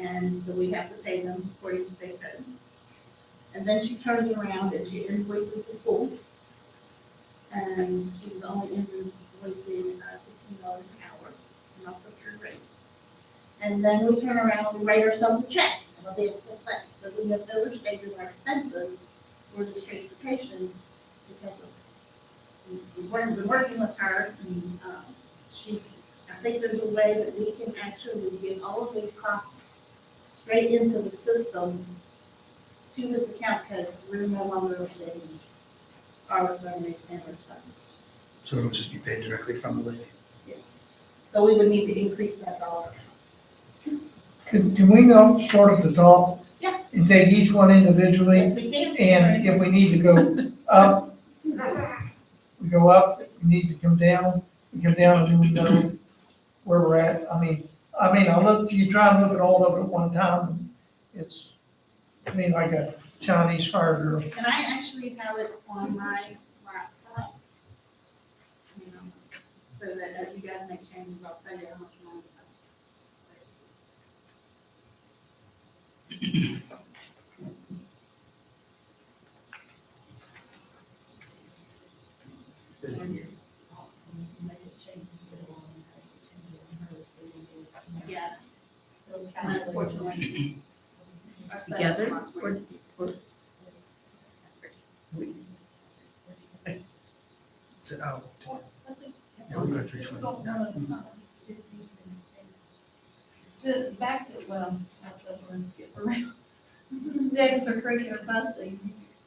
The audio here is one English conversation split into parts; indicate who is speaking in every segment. Speaker 1: and so we have to pay them according to state code. And then she turns around and she invoices the school. And she was only invoicing uh, fifteen dollars an hour, not for her rate. And then we turn around, we write ourselves a check, and it'll be excess cents. So we have overstated our expenses for this transportation because of this. We- We've been been working with her, and um, she, I think there's a way that we can actually get all of these costs straight into the system to this account because we're no longer overstating our revenue standard funds.
Speaker 2: So it'll just be paid directly from the levy.
Speaker 1: Yes. So we would need to increase that dollar amount.
Speaker 3: Can, can we go start at the top?
Speaker 1: Yeah.
Speaker 3: And take each one individually,
Speaker 1: Yes, we can.
Speaker 3: and if we need to go up, we go up, if we need to come down, we come down, and then we know where we're at. I mean, I mean, I look, you try and look at all of it at one time, it's, I mean, like a Chinese fire drill.
Speaker 1: And I actually have it on my laptop. You know, so that as you guys make changes, I'll tell you how much money. it costs. Yeah, and unfortunately. it's-
Speaker 4: Together, or- or-
Speaker 2: It's an hour. Yeah, we'll go through twenty.
Speaker 5: The back to, well, I'll just run skip around. The extracurricular busing,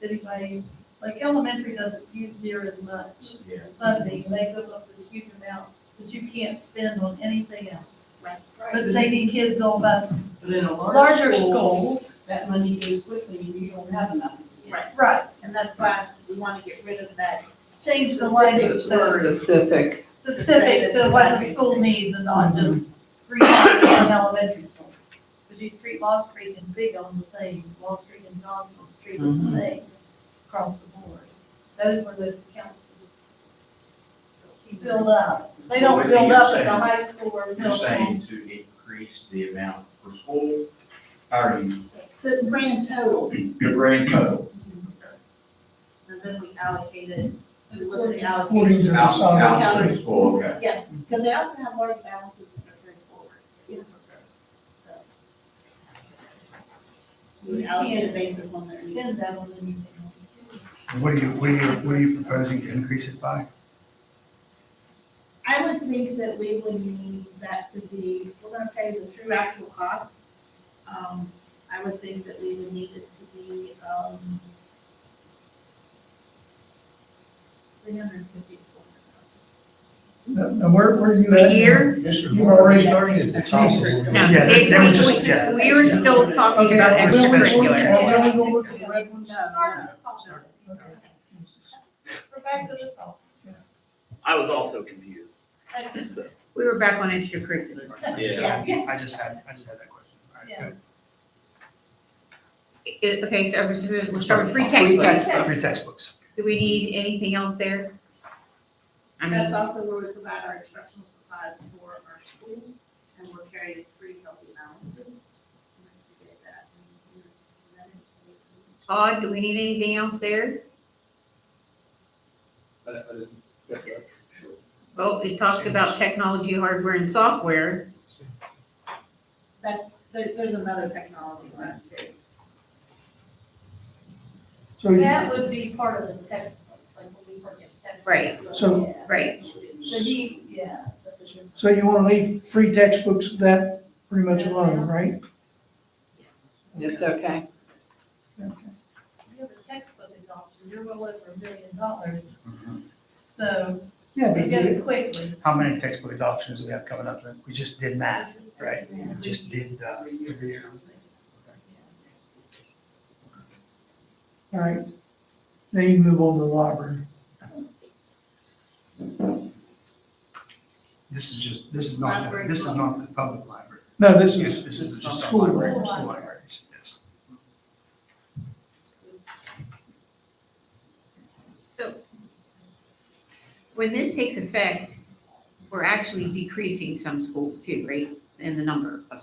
Speaker 5: anybody, like elementary doesn't use near as much
Speaker 6: Yeah.
Speaker 5: funding. They hook up this huge amount that you can't spend on anything else.
Speaker 1: Right.
Speaker 5: But taking kids on buses.
Speaker 7: But in a
Speaker 5: Larger
Speaker 7: larger school, that money goes quickly and you don't have enough.
Speaker 1: Right,
Speaker 5: Right.
Speaker 1: and that's why we want to get rid of that.
Speaker 5: Change the language so
Speaker 7: Specific.
Speaker 5: it's
Speaker 4: Specific.
Speaker 5: specific to what the school needs and not just three laws in elementary school. Because you treat Lost Creek and Big on the same, Lost Creek and Johnson Street on the same, across the board. Those were those accounts just build up. They don't build up at the high school or
Speaker 6: You're
Speaker 5: middle school.
Speaker 6: saying to increase the amount per school, or you,
Speaker 1: The grand total,
Speaker 6: the grand total?
Speaker 1: and then we allocate it, we look at the allocation.
Speaker 3: According to the
Speaker 6: Out,
Speaker 3: size.
Speaker 6: out of the school, okay.
Speaker 1: Because they also have large balances that are carried forward. So. We allocate a basis on their needs.
Speaker 5: Spend that on anything else.
Speaker 2: And What are you, what are you, what are you proposing to increase it by?
Speaker 1: I would think that we would need that to be, if we're gonna pay the true actual cost. Um, I would think that we would need it to be, um, three hundred and fifty.
Speaker 3: Now, now where, where are you
Speaker 4: A
Speaker 3: at?
Speaker 4: year?
Speaker 3: You've already started.
Speaker 4: No,
Speaker 2: Yeah, they-
Speaker 4: they-
Speaker 2: they were
Speaker 4: we-
Speaker 2: just-
Speaker 4: we-
Speaker 2: yeah.
Speaker 4: We were still talking about
Speaker 2: Okay, we'll- we'll-
Speaker 4: extracurricular.
Speaker 3: Well, then we go look at the red ones.
Speaker 5: We're back to the top.
Speaker 8: I was also confused. So,
Speaker 4: We were back on extracurricular.
Speaker 8: Yeah.
Speaker 2: I just had, I just had that question. All right,
Speaker 5: Yeah.
Speaker 2: good.
Speaker 4: I- I- Okay, so we're supposed- we'll start with free textbooks.
Speaker 2: Free textbooks.
Speaker 4: Do we need anything else there? I mean,
Speaker 1: That's also where we provide our instructional supplies for our schools, and we're carrying three healthy balances.
Speaker 4: Todd, do we need anything else there? Well, it talks about technology, hardware, and software.
Speaker 1: That's, there, there's another technology one too.
Speaker 3: So you-
Speaker 5: That would be part of the textbooks, like when we purchase textbooks.
Speaker 4: Right.
Speaker 3: So-
Speaker 5: Yeah.
Speaker 4: Right,
Speaker 5: So he, yeah, that's a good.
Speaker 3: So you wanna leave free textbooks that pretty much alone, right?
Speaker 4: it's okay.
Speaker 5: You have a textbook adoption, you're well over a million dollars,
Speaker 2: Mhm.
Speaker 5: so
Speaker 3: Yeah,
Speaker 5: it goes
Speaker 3: but
Speaker 5: quickly.
Speaker 2: How many textbook adoptions do we have coming up? We just did math, right? We just did, uh, every year.
Speaker 3: all right. Now you move on to the library.
Speaker 2: This is just, this is not, the- this is not the public library.
Speaker 3: No, this
Speaker 2: This
Speaker 3: is,
Speaker 2: is, this is just the
Speaker 3: School
Speaker 2: library,
Speaker 5: library.
Speaker 2: school libraries, yes.
Speaker 4: So when this takes effect, we're actually decreasing some schools too, right, in the number of